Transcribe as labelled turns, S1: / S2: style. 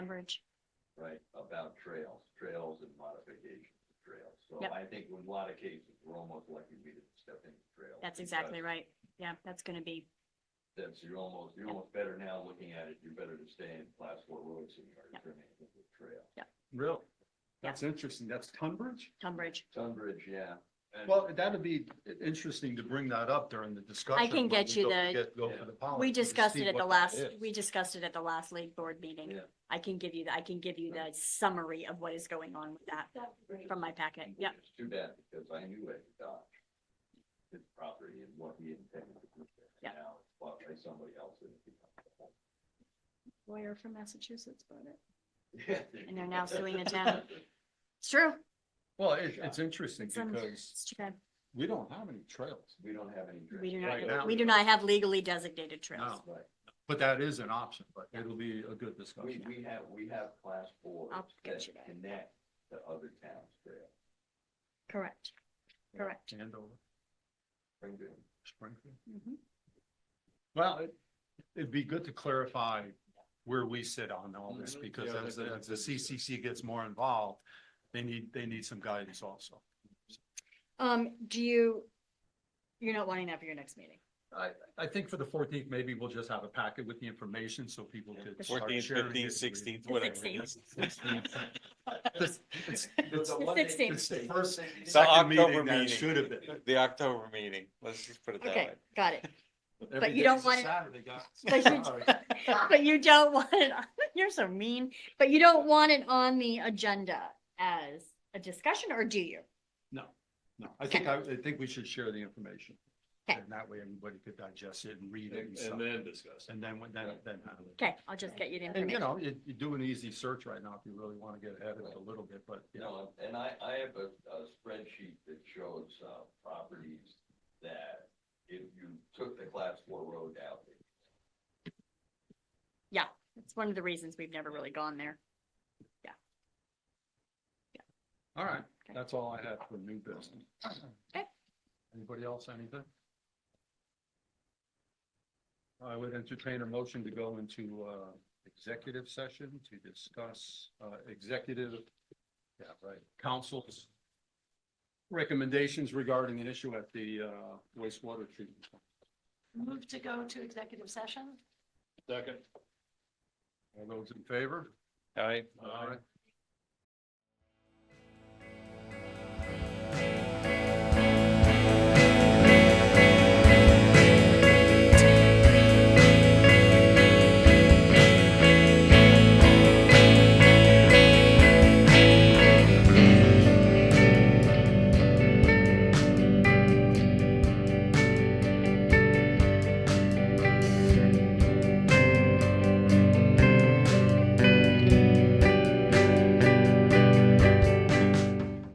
S1: coverage.
S2: right, about trails, trails and modifications of trails. So
S1: Yep.
S2: I think in a lot of cases, we're almost lucky we didn't step into trails.
S1: That's
S2: because
S1: exactly right. Yeah, that's gonna be,
S2: That's, you're almost, you're
S1: Yep.
S2: almost better now looking at it, you're better to stay in class four roads than you are
S1: Yep.
S2: to turn it into a trail.
S3: Really? That's interesting. That's Tunbridge?
S1: Tunbridge.
S2: Tunbridge, yeah. And-
S3: Well, that'd be interesting to bring that up during the discussion.
S1: can
S3: when
S1: get
S3: we
S1: you
S3: go-
S1: the-
S3: get- go for the policy
S1: We
S3: to Oh, see
S1: discussed it at
S3: what
S1: the
S3: that
S1: last,
S3: is.
S1: we discussed it at the last league board meeting.
S2: Yeah.
S1: I can give you, the I can give you the summary of what is going on with that from my packet. Yep,
S2: It's too bad because I knew Ed Dodge, his property and what he intended to do there.
S1: Yep.
S2: Now it's bought by somebody else and it becomes a whole-
S1: lawyer from Massachusetts bought it.
S2: Yeah.
S1: And they're now suing the town. It's true.
S3: Well, it's, it's interesting
S1: It's un-
S3: because
S1: it's too bad.
S3: we don't have any trails,
S2: We don't have any.
S1: We do
S3: Right now.
S1: not, we do not have legally designated trails.
S3: No.
S2: Right.
S3: but that is an option, but it'll be a good discussion.
S2: We, we have, we have class boards
S1: I'll get
S2: that
S1: you that.
S2: connect to other towns there.
S1: Correct. Correct.
S3: Andover,
S2: Springfield.
S3: Springfield.
S1: Mhm.
S3: Well, it- it'd be good to clarify where we sit on all this,
S1: Mm-hmm.
S2: Mhm.
S3: because
S4: Yeah,
S3: as,
S4: that-
S3: the- as the CCC gets more involved, they need, they need some guidance also.
S1: Um, do you, you're not wanting that for your next meeting?
S3: I, I think for the fourteenth, maybe we'll just have a packet with the information so people could. start
S4: Fourteenth,
S3: sharing it
S4: fifteenth,
S3: with-
S4: sixteenth,
S1: The
S4: whatever. it
S1: 16th.
S4: is.
S3: It's- it's-
S2: The
S1: The
S2: Monday-
S1: 16th.
S3: It's the first
S4: So
S3: second
S4: October
S3: meeting that it
S4: meeting.
S3: should have been.
S4: The October meeting, let's just put it that
S1: Okay,
S4: way.
S1: got it.
S3: Every
S1: you
S3: day's
S1: don't
S3: a
S1: want it-
S3: Saturday, guys.
S1: But you,
S3: Sorry.
S1: but you don't want it, on- you're so mean, but you don't want it on the agenda as a discussion, or do you?
S3: No, no, I think, I, I think we should share the information.
S1: Okay.
S3: And that way everybody could digest it and read it and
S4: And
S3: stuff.
S4: and then discuss.
S3: And then, when- then, then. have it.
S1: Okay, I'll just get you the
S3: And you
S1: information.
S3: know, you, you do an easy search right now if you really want to get ahead of it a little bit, but you know,
S2: No, and I, I have a, a spreadsheet that shows, uh, properties that if you took the class four road out,
S1: It's one of the reasons we've never really gone there.
S3: all right,
S1: Okay.
S3: that's all I have for new business.
S1: Okay.
S3: Anybody else, anything? I would entertain a motion to go into, uh, executive session to discuss, uh, executive, yeah, right, council's recommendations regarding an issue at the, uh, wastewater treatment. plant.
S5: Move to go to executive session?
S3: All those in favor?
S4: All right.
S3: All right.